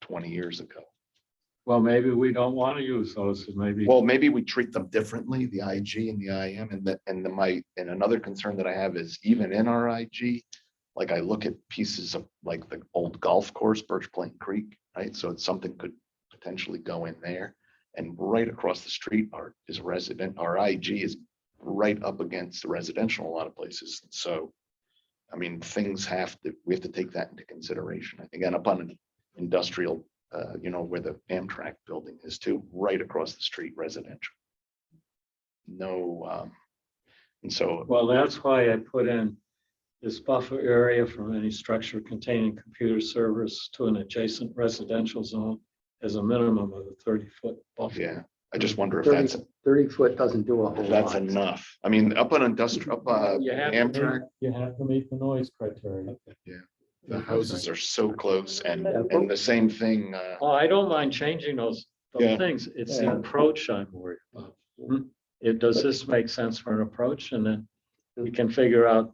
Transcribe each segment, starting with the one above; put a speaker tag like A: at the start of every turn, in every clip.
A: twenty years ago.
B: Well, maybe we don't want to use those, and maybe.
A: Well, maybe we treat them differently, the IG and the IM and the, and the my, and another concern that I have is even in our IG. Like I look at pieces of like the old golf course, Birch Plain Creek, right? So it's something could potentially go in there. And right across the street are is resident, our IG is right up against the residential in a lot of places. So. I mean, things have to, we have to take that into consideration. I think and up on an industrial uh, you know, where the Amtrak building is too, right across the street residential. No, um, and so,
B: Well, that's why I put in this buffer area from any structure containing computer servers to an adjacent residential zone as a minimum of a thirty-foot buffer.
A: yeah, I just wonder if that's,
C: Thirty, thirty foot doesn't do a whole
A: if that's
C: lot.
A: enough. I mean, up on industrial, up, uh,
B: You have to meet-
A: Amtrak,
B: you have to meet the noise criteria.
A: the houses are so close and,
C: Yeah.
A: and the same thing, uh,
B: Oh, I don't mind changing those,
A: Yeah.
B: those things. It's the
C: Yeah.
B: approach I'm worried about. It, does this make sense for an approach? And then we can figure out,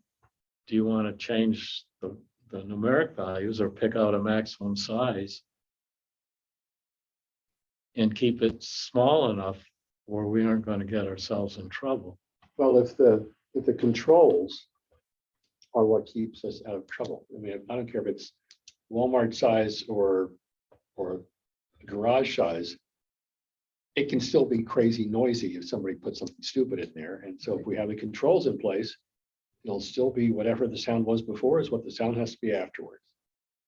B: do you want to change the, the numeric values or pick out a maximum size? And keep it small enough where we aren't going to get ourselves in trouble.
C: Well, if the, if the controls are what keeps us out of trouble, I mean, I don't care if it's Walmart size or, or garage size. It can still be crazy noisy if somebody puts something stupid in there, and so if we have the controls in place, it'll still be whatever the sound was before is what the sound has to be afterwards.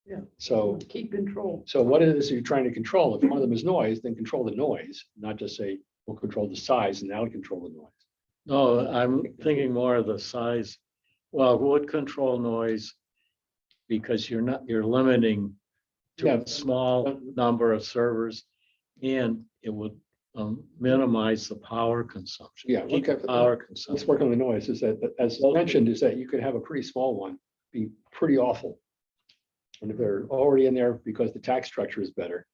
D: Yeah.
C: So,
D: Keep control.
C: so what it is you're trying to control, if one of them is noise, then control the noise, not just say, we'll control the size and now control the noise.
B: No, I'm thinking more of the size. Well, would control noise because you're not, you're limiting to
C: Yeah.
B: a small number of servers and it would um, minimize the power consumption.
C: Yeah,
B: keep
C: okay.
B: the Power
C: Let's
B: consumption.
C: work on the noise, is that, that- as mentioned, is that you could have a pretty small one, be pretty awful. And if they're already in there because the tax structure is better,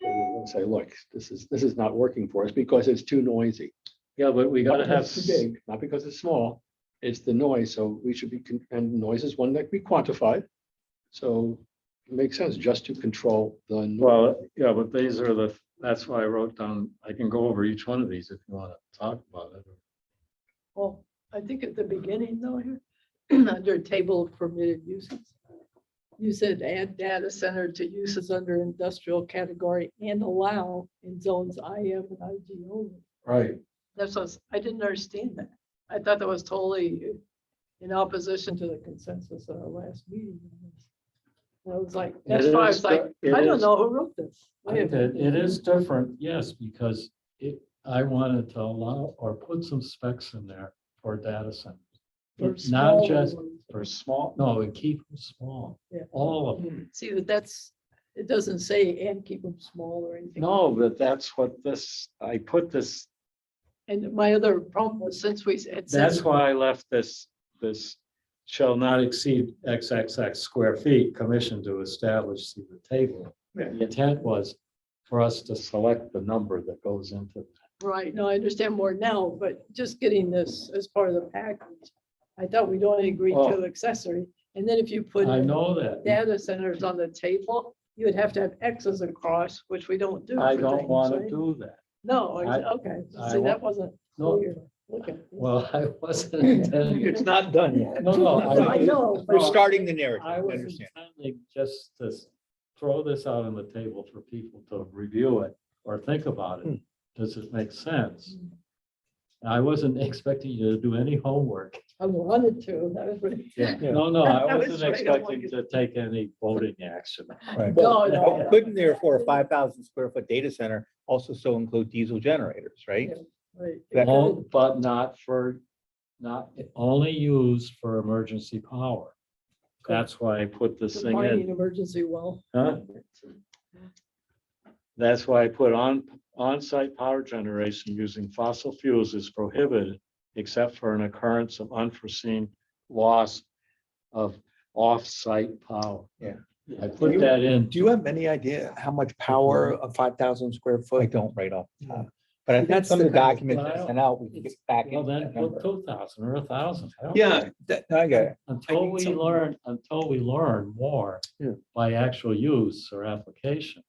C: then we won't say, look, this is, this is not working for us because it's too noisy.
B: Yeah, but we
C: Not
B: gotta have,
C: because it's Too big, not because it's small, it's the noise, so we should be, con- and noise is one that we quantified. So it makes sense just to control the. noise.
B: well, yeah, but these are the, that's why I wrote down, I can go over each one of these if you want to talk about it.
D: Well, I think at the beginning though, here, under table of permitted uses, you said add data center to uses under industrial category and allow in zones IM and IG only.
B: Right.
D: That's, what I was- I didn't understand that. I thought that was totally in opposition to the consensus at our last meeting. on this. And I was like, that's why I was like, I don't know who wrote this.
B: I think that it is different, yes, because it, I wanted to allow or put some specs in there for data centers.
D: For
B: It's Not
D: smaller
B: just
D: ones.
B: for small, no, and keep them small,
D: Yeah.
B: all of them.
D: See, that that's, it doesn't say and keep them small or anything.
B: No, but that's what this, I put this,
D: And my other problem was since we had. said-
B: that's why I left this, this shall not exceed XXX square feet, commission to establish see the table.
D: Yeah.
B: The intent was for us to select the number that goes into.
D: Right, no, I understand more now, but just getting this as part of the package. I thought we'd only agree
B: Oh.
D: to accessory, and then if you put
B: I know that.
D: data centers on the table, you would have to have X's across, which we don't do.
B: I
D: for
B: don't
D: things,
B: want to
D: right?
B: do that.
D: No, I-
B: I-
D: okay,
B: I
D: see,
B: wa-
D: that wasn't
B: No.
D: clear. Look at this.
B: Well, I wasn't intending,
E: It's not done yet.
B: no, no.
D: I know,
E: We're
D: but-
E: starting the narrative. I
B: I was
E: understand.
B: intending just to s- throw this out on the table for people to review it or think about it.
D: Hmm.
B: Does it make sense? I wasn't expecting you to do any homework.
D: I wanted to, that was really.
B: No, no, I
D: That was
B: wasn't
D: right. I don't want
B: expecting to take any voting action.
D: No, no.
E: But Couldn't therefore a five thousand square foot data center also so include diesel generators, right?
D: right.
E: That-
B: All- But not for, not, only used for emergency power. That's why I put this thing in.
D: Mining emergency well.
B: Huh? That's why I put on, on-site power generation using fossil fuels is prohibited except for an occurrence of unforeseen loss of off-site power.
E: Yeah.
B: I put that in.
F: Do you have any idea how much power a five thousand square
E: I
F: foot? Hmm.
E: don't right off. the top. But I think
F: That's
E: some of
F: the
E: the
F: kind of-
E: documents that sent out, we can get back
B: Well,
E: into
B: then
E: that number.
B: put two thousand or a thousand.
F: Yeah, that,
E: No, I got it.
B: Until we
F: something-
B: learn, until we learn more
F: Yeah.
B: by actual use or application.